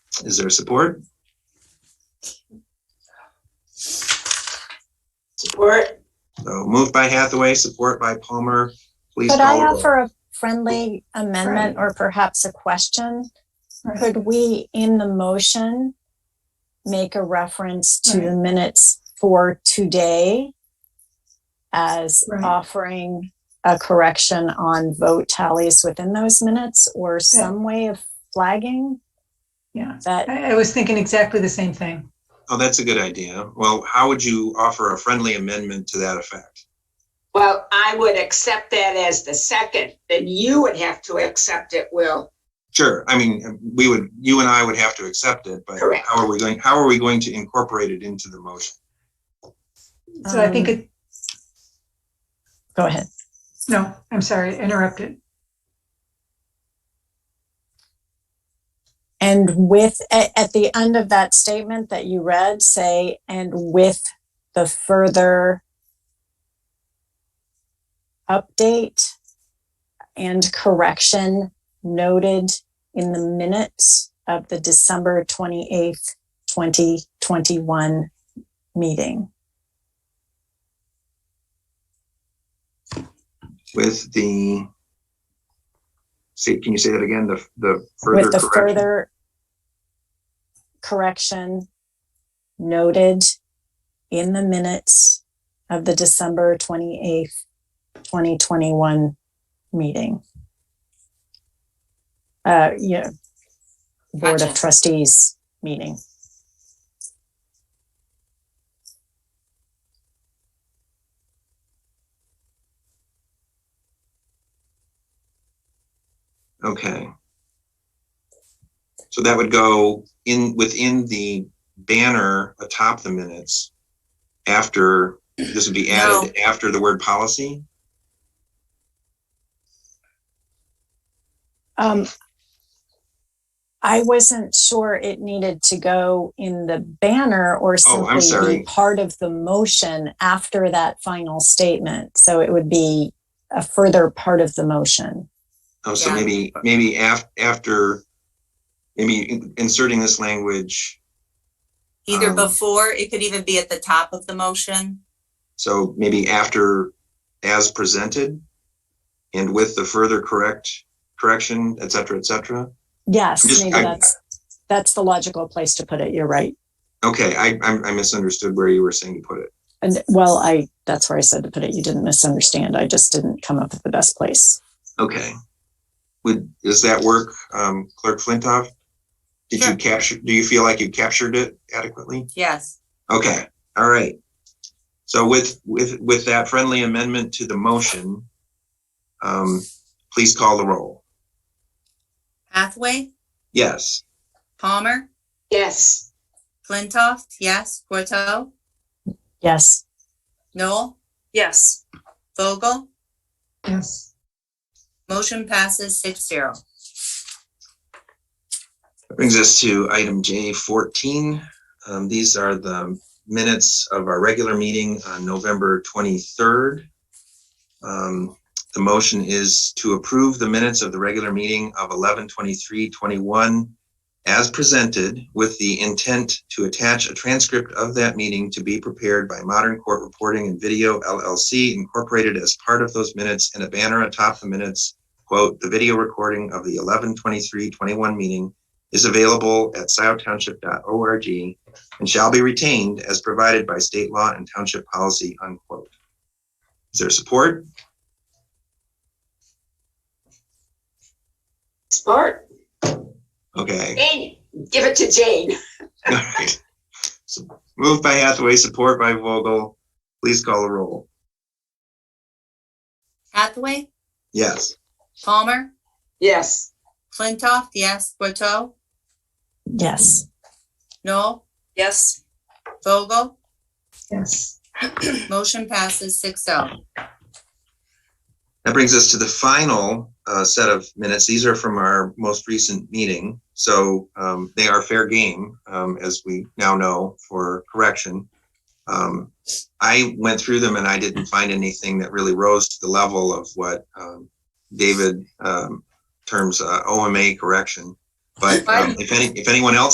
Is there support? Support? So moved by Hathaway, support by Palmer. Please Could I call. roll. offer a friendly amendment or perhaps a question? Right. Could we, in the motion, make a reference to the minutes for today as Right. offering a correction on vote tallies within those minutes or some way of flagging Yeah. that? I, I was thinking exactly the same thing. Oh, that's a good idea. Well, how would you offer a friendly amendment to that effect? Well, I would accept that as the second, then you would have to accept it, Will. Sure, I mean, we would, you and I would have to accept it, but Correct. how are we going, how are we going to incorporate it into the motion? So I think Um, it, Go ahead. no, I'm sorry, interrupted. And with, at, at the end of that statement that you read, say, and with the further update and correction noted in the minutes of the December 28th, 2021 meeting. With the, see, can you say that again, the, the further With the correction? further correction noted in the minutes of the December 28th, 2021 meeting. Uh, yeah, Board of Gotcha. Trustees meeting. Okay. So that would go in, within the banner atop the minutes after, this would be added after the word policy? Um, I wasn't sure it needed to go in the banner or Oh, I'm simply sorry. be part of the motion after that final statement. So it would be a further part of the motion. Oh, so Yeah. maybe, maybe af- after, maybe in- inserting this language, Either Um, before, it could even be at the top of the motion. so maybe after as presented and with the further correct, correction, et cetera, et cetera. Yes, Just- maybe I- that's, that's the logical place to put it. You're right. Okay, I, I I misunderstood where you were saying to put it. And well, I, that's where I said to put it. You didn't misunderstand. I just didn't come up with the best place. Okay. Would, does that work, um, Clerk Flintoff? Did you Sure. capture, do you feel like you captured it adequately? Yes. Okay, all right. So with, with, with that friendly amendment to the motion, um, please call the roll. Hathaway, Yes, Palmer, Yes, Flintoff, yes. Corto, Yes. Noel? Yes. Vogel, Yes. motion passes six zero. that brings us to item J fourteen. Um, these are the minutes of our regular meeting on November twenty-third. Um, the motion is to approve the minutes of the regular meeting of eleven twenty-three twenty-one as presented with the intent to attach a transcript of that meeting to be prepared by Modern Court Reporting and Video LLC incorporated as part of those minutes and a banner atop the minutes. Quote, "The video recording of the eleven twenty-three twenty-one meeting is available at sciotownship.org and shall be retained as provided by state law and township policy." Unquote. Is there support? support. Okay. Jane, give it to Jane. All right. So Moved by Hathaway, support by Vogel. Please call the roll. Hathaway, Yes. Palmer, Yes. Flintoff, yes. Corto, Yes. Noel? Yes. Vogel, Yes. motion passes six oh. That brings us to the final uh, set of minutes. These are from our most recent meeting. So um, they are fair game, um, as we now know, for correction. Um, I went through them and I didn't find anything that really rose to the level of what um, David um, terms uh, OMA correction. But um, if any, if anyone else